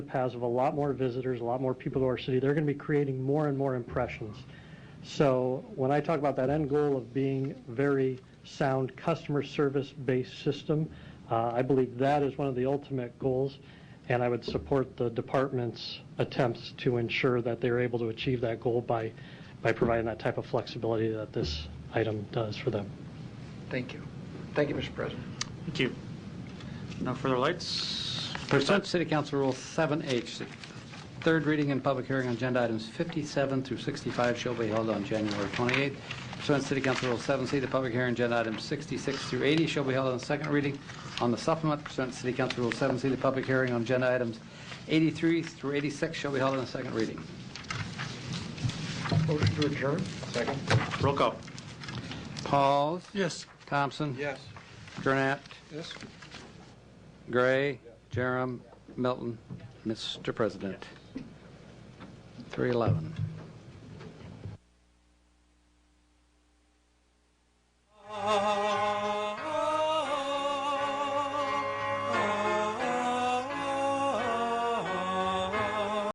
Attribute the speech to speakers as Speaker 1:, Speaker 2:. Speaker 1: paths of a lot more visitors, a lot more people to our city. They're going to be creating more and more impressions. So when I talk about that end goal of being very sound customer service-based system, uh, I believe that is one of the ultimate goals, and I would support the department's attempts to ensure that they're able to achieve that goal by, by providing that type of flexibility that this item does for them.
Speaker 2: Thank you. Thank you, Mr. President.
Speaker 3: Thank you. No further lights?
Speaker 4: Pursuant to City Council Rule 7H, third reading and public hearing on agenda items 57 through 65 shall be held on January 28th. Pursuant to City Council Rule 7C, the public hearing on agenda items 66 through 80 shall be held on second reading on the supplement. Pursuant to City Council Rule 7C, the public hearing on agenda items 83 through 86 shall be held on the second reading.
Speaker 2: Motion to adjourn? Second.
Speaker 3: Roll call.
Speaker 4: Pauls?
Speaker 3: Yes.
Speaker 4: Thompson?
Speaker 2: Yes.
Speaker 4: Gurnett?
Speaker 2: Yes.
Speaker 4: Gray? Jerem? Milton? Mr. President? 311.